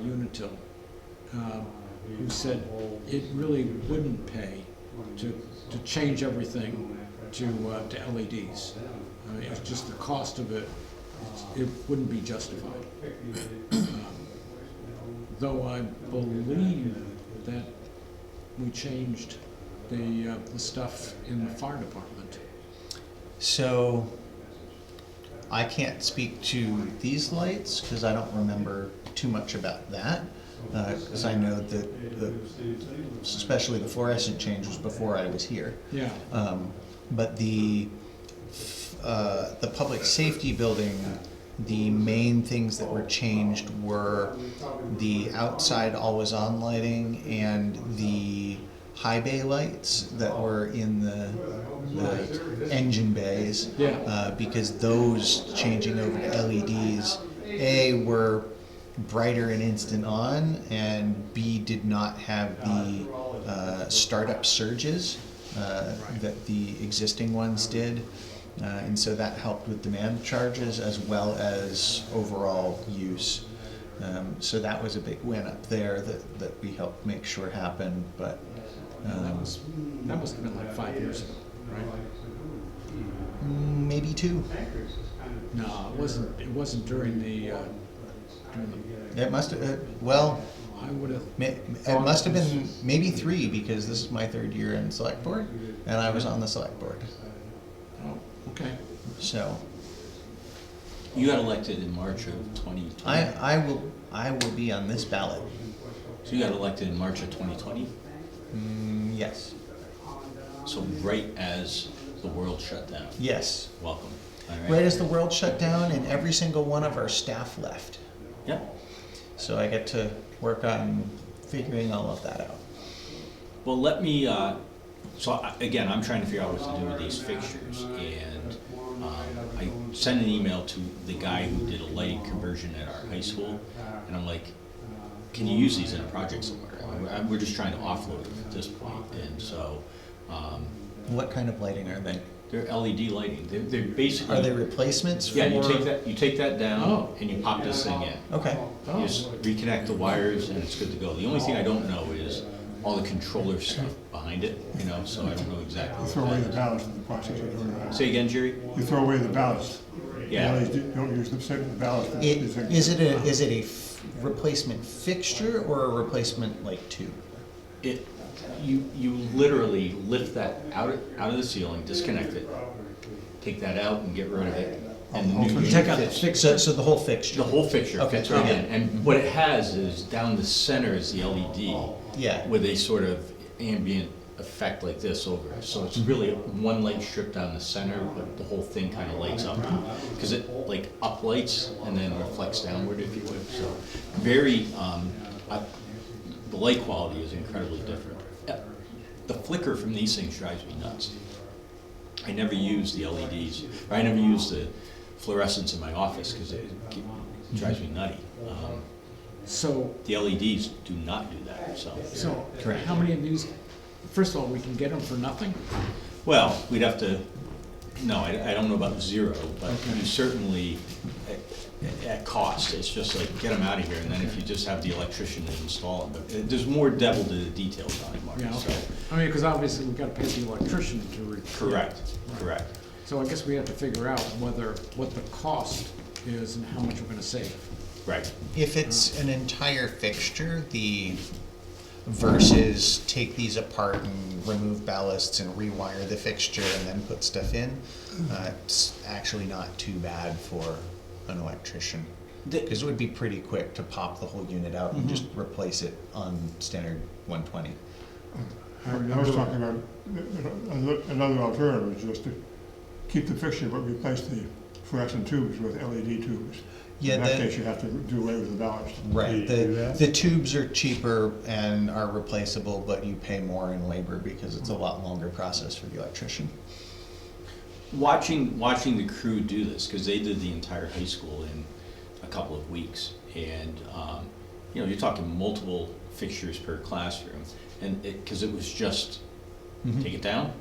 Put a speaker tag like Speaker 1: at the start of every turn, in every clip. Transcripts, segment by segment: Speaker 1: Rizzo, um, who said it really wouldn't pay to, to change everything to, uh, to LEDs. I mean, it's just the cost of it, it's- it wouldn't be justified. Um, Though I believe that we changed the, uh, the stuff in the fire department.
Speaker 2: So I can't speak to these lights because I don't remember too much about that. Because I know that the, especially the fluorescent change was before I was here.
Speaker 1: Yeah,
Speaker 2: Um, but the uh, the public safety building, the main things that were changed were the outside always on lighting and the high bay lights that were in the, the engine bays.
Speaker 1: Yeah.
Speaker 2: Uh, because those changing over to LEDs, A, were brighter and instant on, and B, did not have the uh, startup surges uh, that the existing ones did. Uh, and so that helped with demand charges as well as overall use. Um, so that was a big win up there that, that we helped make sure happened. But
Speaker 1: that
Speaker 2: um,
Speaker 1: was, that must have been like five years ago, right?
Speaker 2: maybe two.
Speaker 1: No, it wasn't, it wasn't during the, uh, during the,
Speaker 2: It must have, uh, well,
Speaker 1: I would have,
Speaker 2: Ma- It must have been maybe three because this is my third year in select board, and I was on the select board.
Speaker 1: oh, okay.
Speaker 2: So
Speaker 3: You got elected in March of twenty twenty.
Speaker 2: I, I will, I will be on this ballot.
Speaker 3: So you got elected in March of twenty twenty,
Speaker 2: Mm, yes,
Speaker 3: so right as the world shut down.
Speaker 2: yes.
Speaker 3: Welcome. All
Speaker 2: Right as the world shut down and every single one of our staff left,
Speaker 3: Yep.
Speaker 2: so I get to work on figuring all of that out.
Speaker 3: Well, let me, uh, so I- again, I'm trying to figure out what to do with these fixtures and, um, I sent an email to the guy who did a lighting conversion at our high school and I'm like, can you use these in a project somewhere? I mean, we're- We're just trying to offload them at this point and so, um,
Speaker 2: What kind of lighting are they?
Speaker 3: they're LED lighting. They're, they're basically.
Speaker 2: Are they replacements for?
Speaker 3: Yeah, you take that, you take that
Speaker 1: Oh.
Speaker 3: down and you pop this thing in.
Speaker 2: Okay,
Speaker 3: You just reconnect the wires and it's good to go. The only thing I don't know is all the controller stuff behind it, you know, so I don't know exactly.
Speaker 4: You
Speaker 3: what
Speaker 4: throw away
Speaker 3: that
Speaker 4: the ballast in the process of doing
Speaker 3: is.
Speaker 4: that.
Speaker 3: Say again, Jerry?
Speaker 4: You throw away the ballast.
Speaker 3: Yeah.
Speaker 4: You don't use the second the ballast.
Speaker 2: it,
Speaker 4: is-
Speaker 2: is it a, is it a f- replacement fixture or a replacement like tube?
Speaker 3: It, you, you literally lift that out, of- out of the ceiling, disconnect it, take that out and get rid of it. And the new, you take out the fix-
Speaker 2: So, so the whole fixture?
Speaker 3: the whole fixture
Speaker 2: Okay,
Speaker 3: fits right in.
Speaker 2: okay.
Speaker 3: And what it has is down the center is the E LED.
Speaker 2: Yeah.
Speaker 3: with a sort of ambient effect like this over it. So it's really one light strip down the center, but the whole thing kind of lights up. Because it like uplights and then reflects downward, if you would. So very, um, I- the light quality is incredibly different. Uh, The flicker from these things drives me nuts. I never use the LEDs, or I never use the fluorescents in my office because it ge- drives me nutty. Um,
Speaker 1: So,
Speaker 3: The LEDs do not do that, so.
Speaker 1: so,
Speaker 2: Correct.
Speaker 1: how many of these, first of all, we can get them for nothing?
Speaker 3: Well, we'd have to, no, I, I don't know about zero, but
Speaker 1: Okay.
Speaker 3: you certainly, at, at cost, it's just like, get them out of here, and then if you just have the electrician to install them, but uh, there's more devil to the details on it, Mark,
Speaker 1: Yeah,
Speaker 3: so.
Speaker 1: okay. I mean, because obviously we've got to pay the electrician to. re-
Speaker 3: Correct, correct.
Speaker 1: So I guess we have to figure out whether, what the cost is and how much we're going to save.
Speaker 3: Right,
Speaker 2: If it's an entire fixture, the versus take these apart and remove ballasts and rewire the fixture and then put stuff in, uh, it's actually not too bad for an electrician.
Speaker 3: The-
Speaker 2: Because it would be pretty quick to pop the whole unit out and just replace it on standard 120.
Speaker 4: I mean, I was talking about another- another alternative, is just to keep the fixture but replace the fluorescent tubes with LED tubes.
Speaker 2: Yeah,
Speaker 4: In that
Speaker 2: the-
Speaker 4: case, you have to do away with the ballast.
Speaker 2: Right.
Speaker 5: Do you do
Speaker 2: The,
Speaker 5: that?
Speaker 2: the tubes are cheaper and are replaceable, but you pay more in labor because it's a lot longer process for the electrician.
Speaker 3: watching, watching the crew do this, because they did the entire high school in a couple of weeks, and, um, you know, you're talking multiple fixtures per classroom, and it, because it was just,
Speaker 1: Mm-hmm.
Speaker 3: take it down,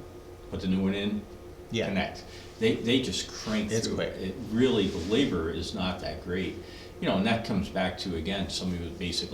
Speaker 3: put the new one in,
Speaker 2: Yeah.
Speaker 3: connect. They, they just crank
Speaker 2: It's
Speaker 3: through
Speaker 2: quick.
Speaker 3: it. It really, the labor is not that great. You know, and that comes back to, again, somebody with basic